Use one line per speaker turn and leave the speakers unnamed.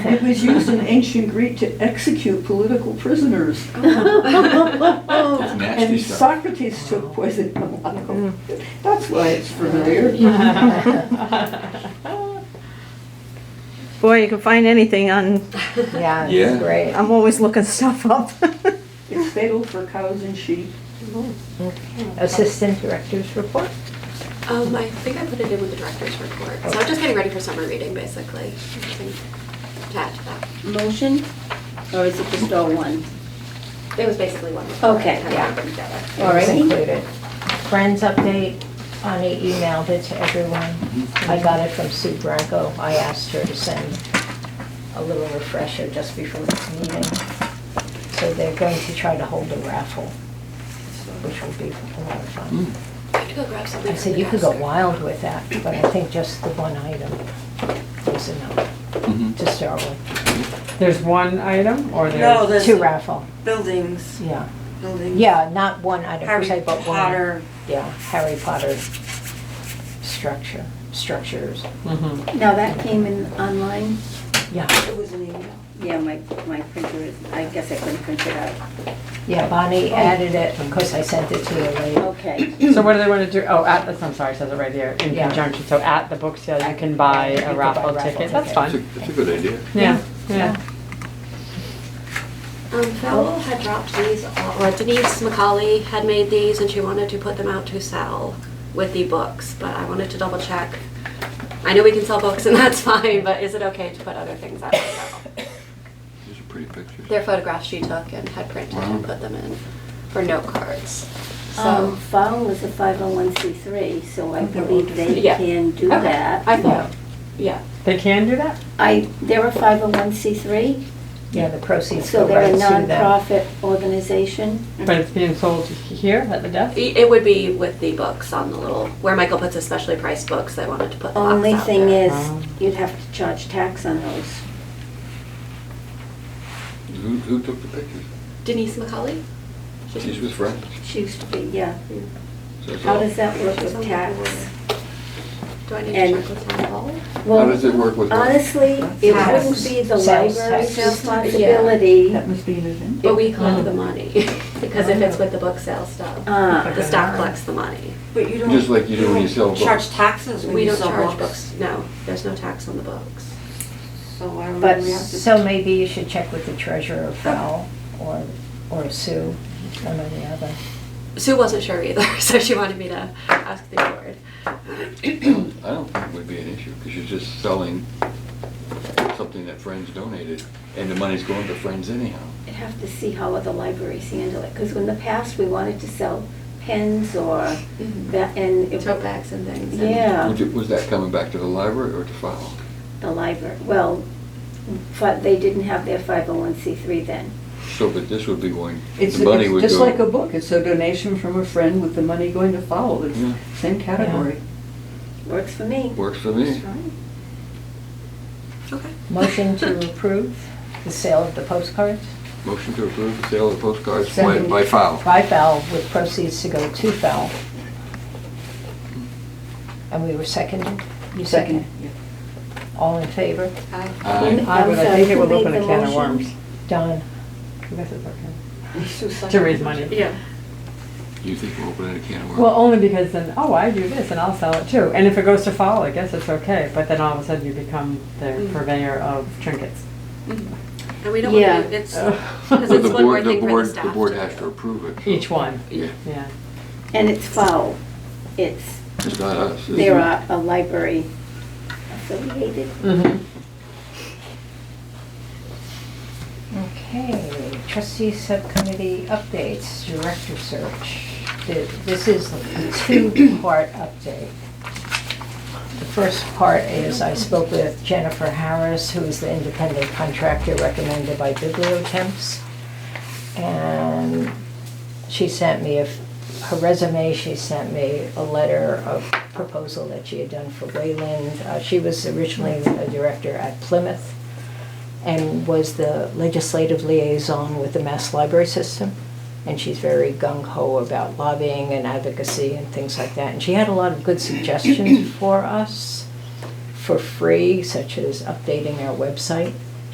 was used in ancient Greek to execute political prisoners.
nasty
And
stuff.
Socrates took poison malaco. That's why it's familiar.
Boy, you can find anything on,
Yeah,
Yeah.
it's great.
I'm always looking stuff up.
It's fatal for cows and sheep.
Assistant Director's Report.
Um, I think I put it in with the director's report, so I'm just getting ready for summer reading, basically. Nothing To add to that.
Motion, or is it just all one?
It was basically one. report,
Okay,
kind of
yeah.
put together.
It was
Alrighty.
included. Friends update, Ani emailed it to everyone.
Mm-hmm.
I got it from Sue Branco. I asked her to send a little refresher just before the meeting. So they're going to try to hold a raffle, which will be a lot of fun.
Mm.
I have to go grab something.
I said, you could go wild with that, but I think just the one item is enough
Mhm.
to start with.
There's one item or there's?
No, there's
Two raffle,
buildings,
yeah.
buildings.
Yeah, not one item per
Harry
se, but one.
Potter.
Yeah, Harry Potter structure, structures.
Mhm.
Now, that came in online?
Yeah,
It was an email.
Yeah, my, my printer is, I guess I couldn't print it out.
yeah, Bonnie added it, of course I sent it to you later.
Okay,
So what do they want to do? Oh, at, the- I'm sorry, it says it right there, in
Yeah.
conjunction. So at the book sale, you can buy
You
a
could buy
raffle
raffle
ticket. That's
tickets.
That's a,
fun.
that's a good idea.
Yeah, yeah.
Um, Fowl had dropped these, all- or Denise McCauley had made these and she wanted to put them out to sell with the books, but I wanted to double check. I know we can sell books and that's fine, but is it okay to put other things out to sell?
These are pretty pictures.
They're photographs she took and had printed and
Wow.
put them in for note cards.
so
Um,
So,
Fowl Um, is a 501c3, so I believe they
Yeah.
can do
Okay.
that.
I thought, yeah,
They can do that?
I, they're a 501c3,
Yeah, the proceeds
so
go
they're
right
a
to them.
nonprofit organization.
But it's being sold here at the desk?
it it would be with the books on the little, where Michael puts his specially priced books, I wanted to put the box
Only
out
thing
there.
is,
Wow.
you'd have to charge tax on those.
Who, who took the pictures?
Denise McCauley? She's-
She's with friends.
She used to be, yeah.
So it's
How
all-
does that work
She's on
with
the
tax?
board. Do I need to
And-
check with Town Hall?
How does it work with
Well,
what?
Honestly, it
Tax.
wouldn't be the
Sales
library's
tax.
responsibility.
That must be an event.
But we collect the money, because if it's with the book sale stuff,
Uh,
the staff collects the money.
But you don't.
Just like you do when you sell
don't
books.
Charge taxes when
We
you
don't
sell
charge
books.
books, no, there's no tax on the books.
So why would
But
we have to?
So maybe you should check with the treasurer, Fowl, or, or Sue, one or the other.
Sue wasn't sure either, so she wanted me to ask the board.
I don't think it would be an issue, because you're just selling something that friends donated, and the money's going to friends anyhow.
I'd have to see how other libraries handle it, because in the past, we wanted to sell pens or that, and it,
Tote bags and things. and-
yeah,
Would you- Was that coming back to the library or to file?
the library, well, but they didn't have their 501c3 then.
So, but this would be going,
It's,
the money
it's
would go.
just like a book. It's a donation from a friend with the money going to Fowl. It's
Yeah.
same category.
Works for me.
Works for me.
Okay.
Motion to approve the sale of the postcards
Motion to approve the sale of postcards by,
Second.
by file.
by Fowl, with proceeds to go to Fowl. And we were seconded? You seconded? All in favor?
Aye.
I would, I think it would open a can of worms.
Done.
I guess it's okay. To
To
raise money.
Yeah.
You think we're opening a can of worms?
Well, only because then, oh, I do this and I'll sell it too. And if it goes to fall, I guess it's okay. But then all of a sudden you become the
Mm.
purveyor of trinkets.
Mm-hmm. And we don't want
Yeah.
to, it's,
But
because
the
it's one more
board- the
thing for
board-
the staff.
The board
to
has
do.
to approve it.
Each one,
Yeah,
yeah.
And it's foul. It's,
it's not us. is
they're
it?
a a library affiliated
Mhm.
Okay, trustee subcommittee updates, director search. Th- This is a two-part update. The first part is I spoke with Jennifer Harris, who is the independent contractor recommended by Bibliotemps. And she sent me, a f- her resume, she sent me a letter of proposal that she had done for Wayland. Uh, She was originally a director at Plymouth and was the legislative liaison with the Mass Library System. And she's very gung ho about lobbying and advocacy and things like that. And she had a lot of good suggestions for us for free, such as updating our website